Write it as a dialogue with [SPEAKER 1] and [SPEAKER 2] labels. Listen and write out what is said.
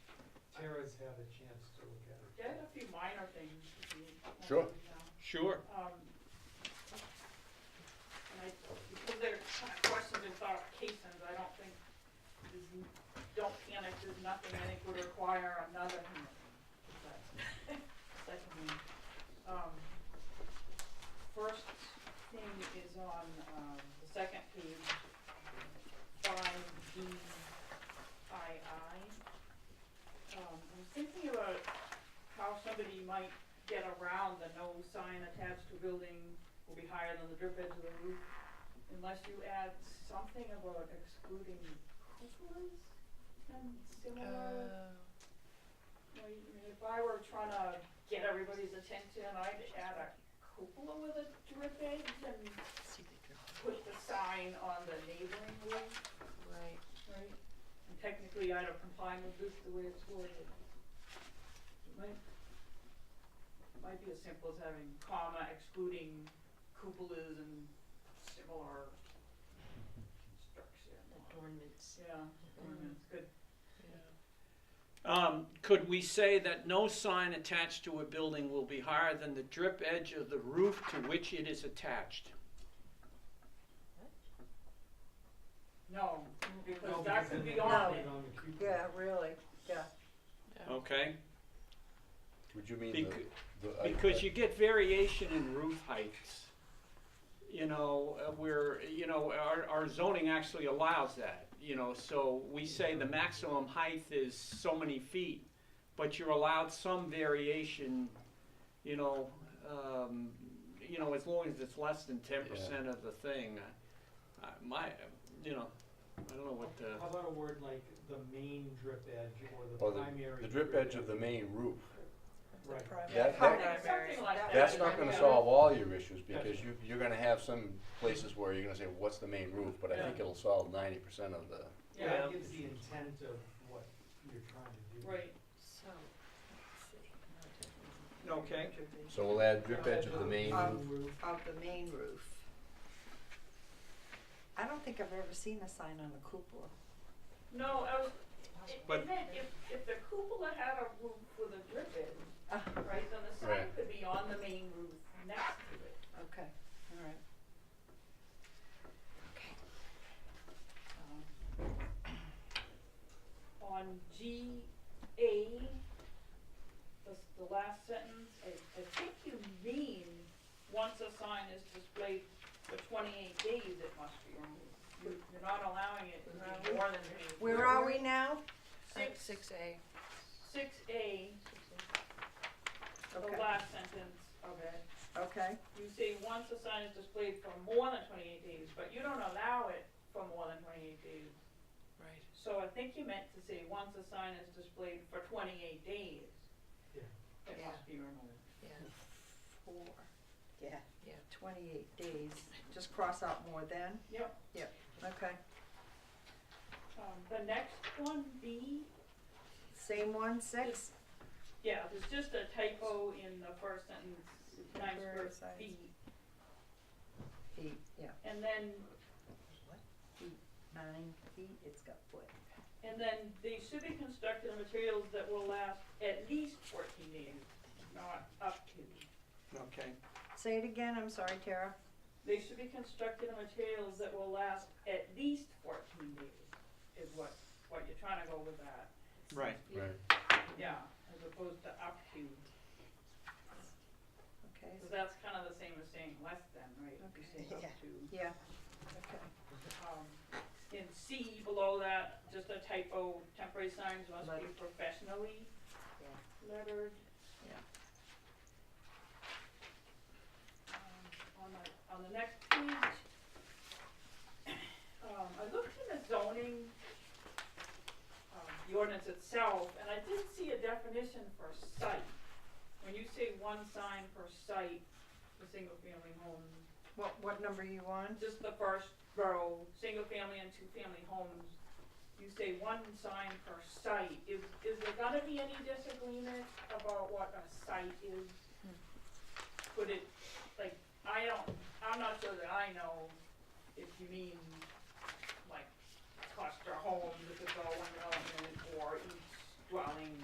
[SPEAKER 1] has had a chance to look at it.
[SPEAKER 2] There's a few minor things. if you want
[SPEAKER 3] Sure.
[SPEAKER 2] to know.
[SPEAKER 4] Sure.
[SPEAKER 2] Um, And I, because they're kind of questions and clarifications, I don't think, there's n- don't panic, there's nothing I think would require another hearing. But, second one. Um, First thing is on, um, the second page, five D I I. Um, I'm thinking about how somebody might get around the no sign attached to building will be higher than the drip edge of the roof unless you add something about excluding cupolas and
[SPEAKER 5] Uh.
[SPEAKER 2] similar. Well, you- I mean, if I were trying to get everybody's attention, I'd add a cupola with a drip edge and put the sign on the neighboring roof,
[SPEAKER 5] Right.
[SPEAKER 2] right? And technically, I'd have complied with this the way it's worded. It might, it might be as simple as having comma excluding cupolas and similar construction.
[SPEAKER 5] Adornments.
[SPEAKER 2] Yeah, ornaments, good.
[SPEAKER 4] Um, could we say that no sign attached to a building will be higher than the drip edge of the roof to which it is attached?
[SPEAKER 2] No, because
[SPEAKER 1] No,
[SPEAKER 2] that
[SPEAKER 1] because
[SPEAKER 2] could be
[SPEAKER 1] then
[SPEAKER 2] on
[SPEAKER 1] they
[SPEAKER 2] it.
[SPEAKER 1] don't keep it.
[SPEAKER 5] Yeah, really, yeah.
[SPEAKER 4] Okay?
[SPEAKER 3] Would you mean
[SPEAKER 4] Bec-
[SPEAKER 3] the, uh, the? I-
[SPEAKER 4] Because
[SPEAKER 3] I-
[SPEAKER 4] you get variation in roof heights. You know, uh, where, you know, our, our zoning actually allows that, you know, so we say the maximum height is so many feet, but you're allowed some variation, you know, um, you know, as long as it's less than ten percent of the thing. Uh, My, you know, I don't know what the.
[SPEAKER 1] How about a word like the main drip edge or the
[SPEAKER 3] Or Oh, the-
[SPEAKER 1] primary?
[SPEAKER 3] The drip edge of the main roof,
[SPEAKER 1] Right.
[SPEAKER 3] That-
[SPEAKER 2] Something- Something like that.
[SPEAKER 3] that's not gonna solve all your issues, because
[SPEAKER 1] Yes.
[SPEAKER 3] you, you're gonna have some places where you're gonna say, what's the main roof? But I think it'll solve ninety percent of the,
[SPEAKER 1] Yeah,
[SPEAKER 2] Yeah,
[SPEAKER 1] that gives the intent of what you're trying to do.
[SPEAKER 2] right.
[SPEAKER 5] So,
[SPEAKER 4] Okay.
[SPEAKER 3] so we'll add drip edge of the
[SPEAKER 1] Uh,
[SPEAKER 3] main
[SPEAKER 5] Um,
[SPEAKER 3] roof.
[SPEAKER 5] Of the main roof. I don't think I've ever seen a sign on a cupola.
[SPEAKER 2] No, I was, i-
[SPEAKER 4] But-
[SPEAKER 2] if, it- if, if the cupola had a roof with a drip in,
[SPEAKER 5] Ah,
[SPEAKER 2] right, then the sign
[SPEAKER 3] Right.
[SPEAKER 2] could be on the main roof next to it.
[SPEAKER 5] okay, all right. Okay.
[SPEAKER 2] Um, On G A, the, s- the last sentence, I, I think you mean, once a sign is displayed for twenty-eight days, it must be removed. You- You're not allowing it to be more than twenty-eight.
[SPEAKER 5] Where are we now?
[SPEAKER 2] Six,
[SPEAKER 6] Six A.
[SPEAKER 2] six A, the
[SPEAKER 5] Okay.
[SPEAKER 2] last sentence of it.
[SPEAKER 5] Okay,
[SPEAKER 2] You say once a sign is displayed for more than twenty-eight days, but you don't allow it for more than twenty-eight days.
[SPEAKER 6] Right.
[SPEAKER 2] So I think you meant to say, once a sign is displayed for twenty-eight days.
[SPEAKER 1] Yeah.
[SPEAKER 2] It
[SPEAKER 5] Yeah.
[SPEAKER 2] must be removed.
[SPEAKER 6] Yeah.
[SPEAKER 5] four. Yeah.
[SPEAKER 6] Yeah.
[SPEAKER 5] Twenty-eight days, just cross out more than,
[SPEAKER 2] Yep.
[SPEAKER 5] okay.
[SPEAKER 2] Um, the next one, B,
[SPEAKER 5] Same one, six?
[SPEAKER 2] yeah, there's just a typo in the first sentence, nine square
[SPEAKER 6] Temporary signs.
[SPEAKER 2] feet.
[SPEAKER 5] Eight, yeah,
[SPEAKER 2] And then,
[SPEAKER 5] nine feet, it's got foot.
[SPEAKER 2] and then they should be constructed of materials that will last at least fourteen days, not up to.
[SPEAKER 4] Okay.
[SPEAKER 5] Say it again, I'm sorry, Tara.
[SPEAKER 2] They should be constructed of materials that will last at least fourteen days, is what, what you're trying to go with that.
[SPEAKER 4] Right.
[SPEAKER 3] Right.
[SPEAKER 2] Yeah, as opposed to up to,
[SPEAKER 5] Okay,
[SPEAKER 2] because that's kind of the same as saying less than, right? You're
[SPEAKER 5] Okay.
[SPEAKER 2] saying up to.
[SPEAKER 5] yeah, okay.
[SPEAKER 2] Um, In C below that, just a typo, temporary signs must be
[SPEAKER 5] Lettered.
[SPEAKER 2] professionally
[SPEAKER 5] Yeah.
[SPEAKER 2] lettered.
[SPEAKER 5] Yeah.
[SPEAKER 2] Um, On the, on the next page, um, I looked in the zoning, um, the ordinance itself, and I didn't see a definition for site. When you say one sign per site, for single-family homes,
[SPEAKER 5] What, what number you on?
[SPEAKER 2] just the first row, single family and two family homes, you say one sign per site, is, is there gonna be any disagreement about what a site is? Could it, like, I don't, I'm not sure that I know if you mean, like, cluster homes, if it's all one element, or each dwelling